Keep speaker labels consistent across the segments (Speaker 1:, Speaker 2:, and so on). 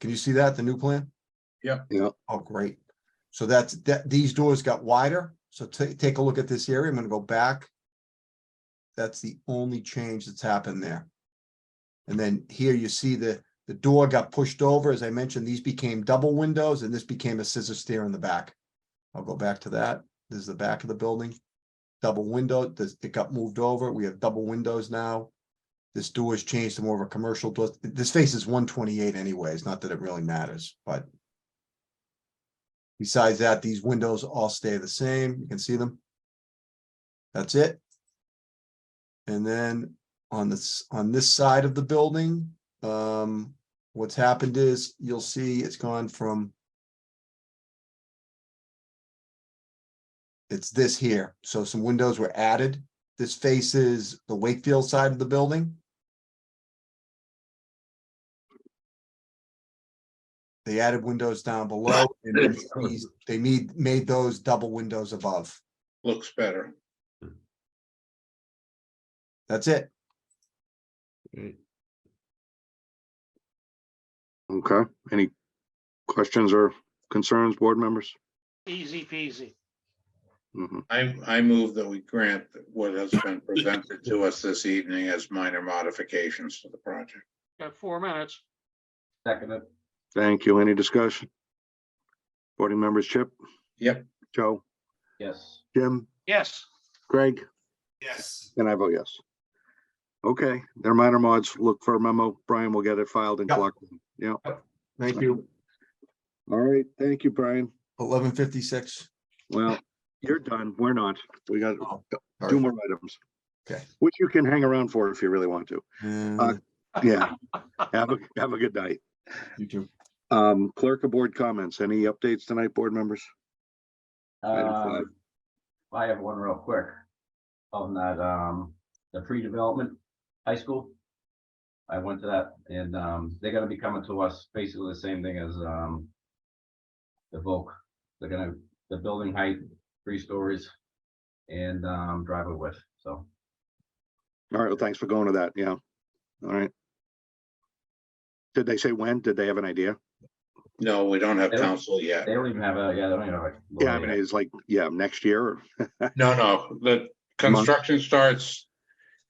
Speaker 1: Can you see that, the new plan?
Speaker 2: Yep.
Speaker 3: Yeah.
Speaker 1: Oh, great. So that's, that, these doors got wider. So ta- take a look at this area. I'm gonna go back. That's the only change that's happened there. And then here you see the, the door got pushed over. As I mentioned, these became double windows and this became a scissor stair in the back. I'll go back to that. This is the back of the building. Double window, this, it got moved over. We have double windows now. This door has changed to more of a commercial door. This face is one twenty-eight anyways, not that it really matters, but besides that, these windows all stay the same. You can see them. That's it. And then on this, on this side of the building, um, what's happened is you'll see it's gone from it's this here. So some windows were added. This faces the Wakefield side of the building. They added windows down below and they made these- they made, made those double windows above.
Speaker 2: Looks better.
Speaker 1: That's it.
Speaker 4: Great.
Speaker 3: Okay, any questions or concerns, board members?
Speaker 5: Easy peasy.
Speaker 3: Mhm.
Speaker 2: I, I move that we grant what has been presented to us this evening as minor modifications to the project.
Speaker 5: Got four minutes.
Speaker 6: Second,
Speaker 3: Thank you. Any discussion? Boarding members, Chip?
Speaker 2: Yep.
Speaker 3: Joe,
Speaker 6: yes.
Speaker 3: Jim,
Speaker 5: Yes,
Speaker 3: Greg,
Speaker 7: Yes.
Speaker 3: and I vote yes. Okay, they're minor mods. Look for a memo. Brian will get it filed and
Speaker 1: Yep.
Speaker 3: collected. Yeah,
Speaker 1: Thank you.
Speaker 3: all right. Thank you, Brian.
Speaker 1: Eleven fifty-six.
Speaker 3: Well, you're done. We're not. We got
Speaker 1: Oh,
Speaker 3: two more items.
Speaker 1: Okay.
Speaker 3: Which you can hang around for if you really want to.
Speaker 1: Uh,
Speaker 3: Yeah. Have a, have a good night.
Speaker 1: You too.
Speaker 3: Um, clerk of board comments. Any updates tonight, board members? Item five.
Speaker 6: Um, I have one real quick. On that, um, the pre-development high school. I went to that and, um, they're gonna be coming to us basically the same thing as, um. The Volk, they're gonna, the building height, three stories. And, um, driveway width, so,
Speaker 3: All right, well, thanks for going to that, yeah. All right. Did they say when? Did they have an idea?
Speaker 2: No, we don't have
Speaker 6: Yeah.
Speaker 2: council yet.
Speaker 6: they don't even have a, yeah, they don't even have a.
Speaker 3: Yeah, I mean, it's like, yeah, next year, or-
Speaker 2: No, no, the construction starts,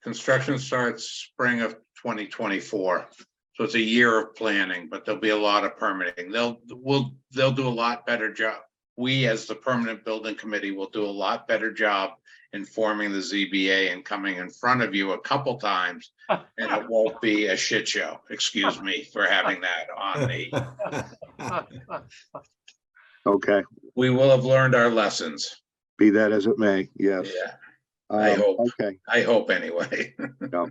Speaker 2: construction starts spring of twenty twenty-four. So it's a year of planning, but there'll be a lot of permitting. They'll, will, they'll do a lot better job. We, as the permanent building committee, will do a lot better job informing the ZBA and coming in front of you a couple times. And it won't be a shit show. Excuse me for having that on me.
Speaker 5: Uh,
Speaker 3: okay,
Speaker 2: We will have learned our lessons.
Speaker 3: be that as it may, yes.
Speaker 2: Yeah, I
Speaker 3: Um,
Speaker 2: hope.
Speaker 3: Okay,
Speaker 2: I hope anyway.
Speaker 3: uh,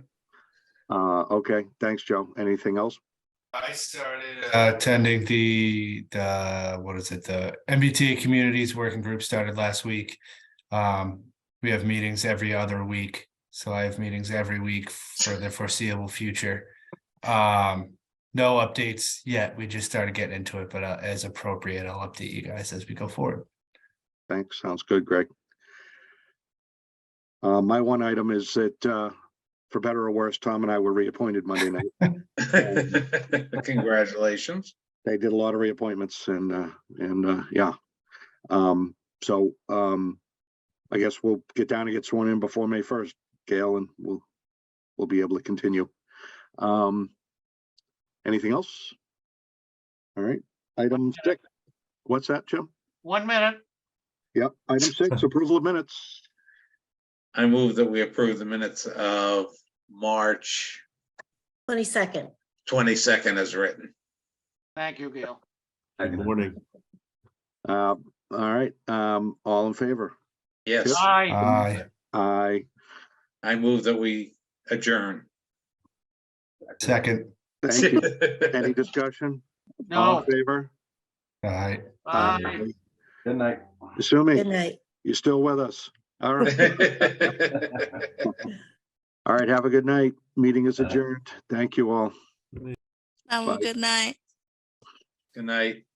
Speaker 3: okay, thanks, Joe. Anything else?
Speaker 7: I started uh, attending the, the, what is it, the MBTA Communities Working Group started last week. Um, we have meetings every other week, so I have meetings every week for the foreseeable future. Um, no updates yet, we just started getting into it, but uh, as appropriate, I'll update you guys as we go forward.
Speaker 3: Thanks, sounds good, Greg. Uh, my one item is that, uh, for better or worse, Tom and I were reappointed Monday night.
Speaker 2: Congratulations.
Speaker 3: they did a lot of reappointments and, uh, and, uh, yeah. Um, so, um, I guess we'll get down and get sworn in before May first, Gail, and we'll, we'll be able to continue. Um, anything else? All right, item six. What's that, Jim?
Speaker 5: one minute.
Speaker 3: Yep, item six, approval of minutes.
Speaker 2: I move that we approve the minutes of March
Speaker 8: Twenty-second,
Speaker 2: twenty-second as written.
Speaker 5: Thank you, Gail.
Speaker 4: Good morning.
Speaker 3: Uh, all right, um, all in favor?
Speaker 2: Yes,
Speaker 7: Uh,
Speaker 5: Aye,
Speaker 4: Aye.
Speaker 3: Aye.
Speaker 2: I move that we adjourn.
Speaker 7: second,
Speaker 3: thank you. Any discussion? All
Speaker 5: no,
Speaker 3: in favor?
Speaker 7: aye.
Speaker 3: uh,
Speaker 5: aye.
Speaker 6: Good night.
Speaker 8: good
Speaker 3: Assuming
Speaker 8: night.
Speaker 3: you're still with us. All right. All right, have a good night. Meeting is
Speaker 6: Uh,
Speaker 3: adjourned. Thank you all.
Speaker 9: Have a
Speaker 3: Bye.
Speaker 9: good night.
Speaker 2: Good night.